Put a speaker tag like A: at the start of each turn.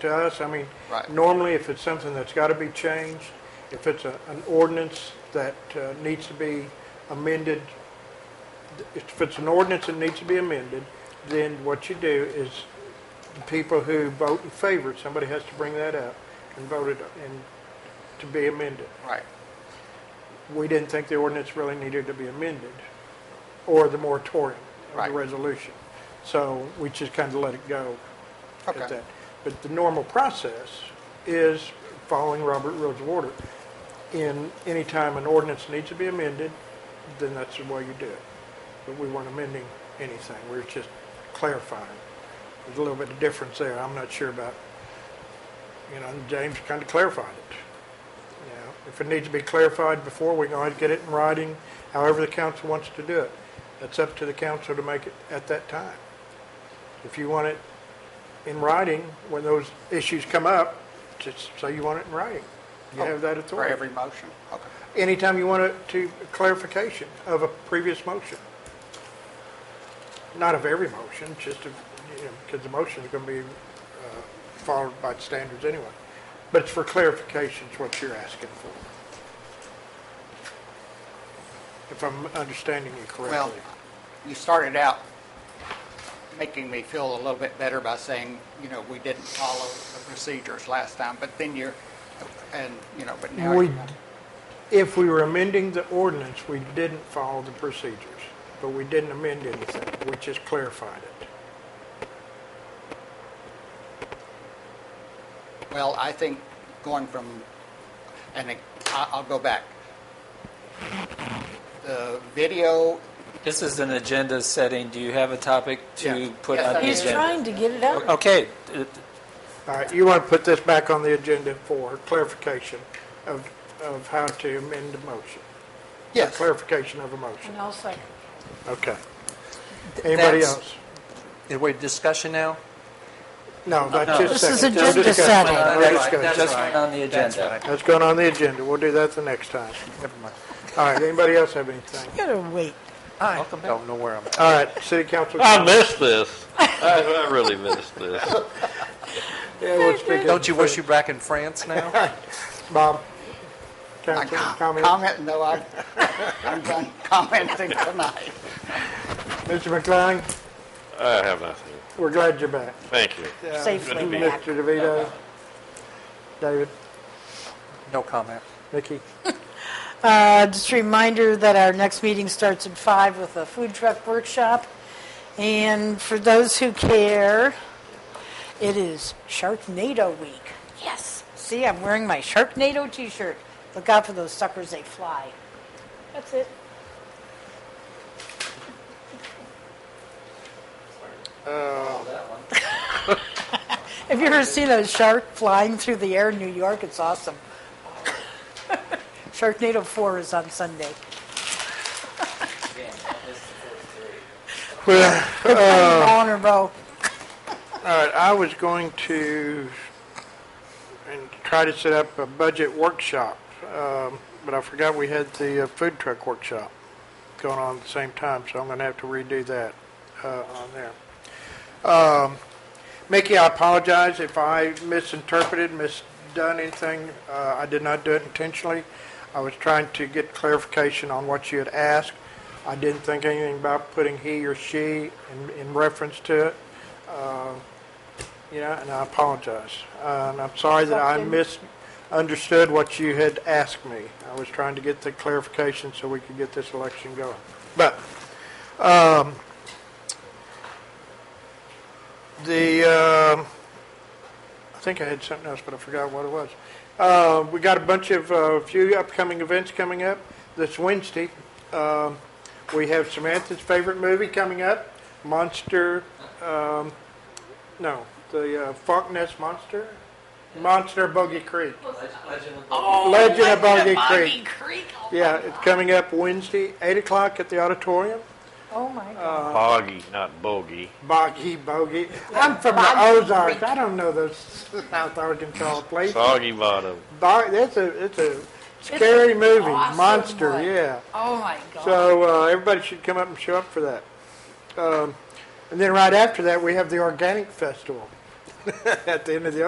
A: to us. I mean,
B: Right.
A: normally if it's something that's got to be changed, if it's a- an ordinance that uh, needs to be amended, if it's an ordinance that needs to be amended, then what you do is the people who vote in favor, somebody has to bring that up and vote it and to be amended.
B: Right.
A: We didn't think the ordinance really needed to be amended or the moratorium of
B: Right.
A: the resolution. So we just kind of let it go at
B: Okay.
A: that. But the normal process is following Robert Rules of Order. In any time an ordinance needs to be amended, then that's the way you do it. But we weren't amending anything, we were just clarifying. There's a little bit of difference there, I'm not sure about, you know, and James kind of clarified it. You know, If it needs to be clarified before, we can always get it in writing, however the council wants to do it. That's up to the council to make it at that time. If you want it in writing, when those issues come up, just say you want it in writing. You have that
B: For
A: authority.
B: every motion? Okay.
A: Anytime you want it to clarification of a previous motion. Not of every motion, just of, you know, because the motion is going to be uh, followed by standards anyway. But it's for clarification is what you're asking for. If I'm understanding you
B: Well,
A: correctly.
B: you started out making me feel a little bit better by saying, you know, we didn't follow the procedures last time, but then you're, and, you know, but now.
A: We,
B: you're-
A: if we were amending the ordinance, we didn't follow the procedures, but we didn't amend anything. We just clarified it.
B: Well, I think going from, and I- I'll go back. The video,
C: This is an agenda setting. Do you have a topic
A: Yeah.
C: to put
B: Yes,
C: on
B: I
C: the
B: do.
D: He's
C: agenda?
D: trying to get it out.
C: Okay, uh,
A: All right, you want to put this back on the agenda for clarification of, of how to amend the motion?
B: yes,
A: Clarification of a motion,
D: And I'll second.
A: okay. Anybody
C: that's-
A: else?
E: Are we discussion now?
A: No, that's
C: no.
A: just.
D: This is
A: second. We're
D: agenda
A: discussing.
D: setting.
A: We're discussing.
C: That's right. just on the
E: That's
C: agenda.
E: right.
A: That's going on the agenda, we'll do that the next time.
E: Never mind.
A: All right, anybody else have anything?
D: You gotta wait.
E: Welcome back. Don't know where I'm at.
A: All right, city council.
F: I missed this. I, I really missed this.
A: Yeah, we'll speak up.
E: Don't you wish you were back in France now?
A: Bob,
B: I
A: council,
B: com-
A: comment?
B: comment, no, I- I'm done commenting tonight.
A: Mr. McLean,
F: I have nothing.
A: we're glad you're back.
F: Thank you.
D: Safely back.
A: Mr. DeVito, David,
E: No comment.
A: Nikki.
D: Uh, Just a reminder that our next meeting starts at five with a food truck workshop. And for those who care, it is Sharknado Week. Yes. See, I'm wearing my Sharknado t-shirt. Look out for those suckers, they fly. That's it. Have you ever seen a shark flying through the air in New York? It's awesome. Sharknado 4 is on Sunday. All in a
A: All
D: row.
A: right, I was going to, and try to set up a budget workshop, um, but I forgot we had the uh, food truck workshop going on at the same time, so I'm going to have to redo that uh, on there. Um, Mickey, I apologize if I misinterpreted, misdone anything. Uh, I did not do it intentionally. I was trying to get clarification on what you had asked. I didn't think anything about putting he or she in- in reference to it. You know, and I apologize. Uh, And I'm sorry that I misunderstood what you had asked me. I was trying to get the clarification so we could get this election going. But um, the, um, I think I had something else, but I forgot what it was. Uh, We got a bunch of, a few upcoming events coming up this Wednesday. Um, We have Samantha's favorite movie coming up, Monster um, no, the uh, Funk Nest Monster, Monster Bogey Creek, Oh, Legend of Bogey Creek. Yeah, it's coming up Wednesday, eight o'clock at the auditorium.
D: Oh, my God.
F: Boggy, not bogey.
A: Boggy Bogey. I'm from the Ozarks. I don't know those South Arkansas places.
F: Soggy bottom.
A: Bo- that's a it's a scary movie,
D: awesome
A: monster.
D: one.
A: Yeah.
D: Oh, my God.
A: So uh, everybody should come up and show up for that. Um, and then right after that, we have the Organic Festival at the end of the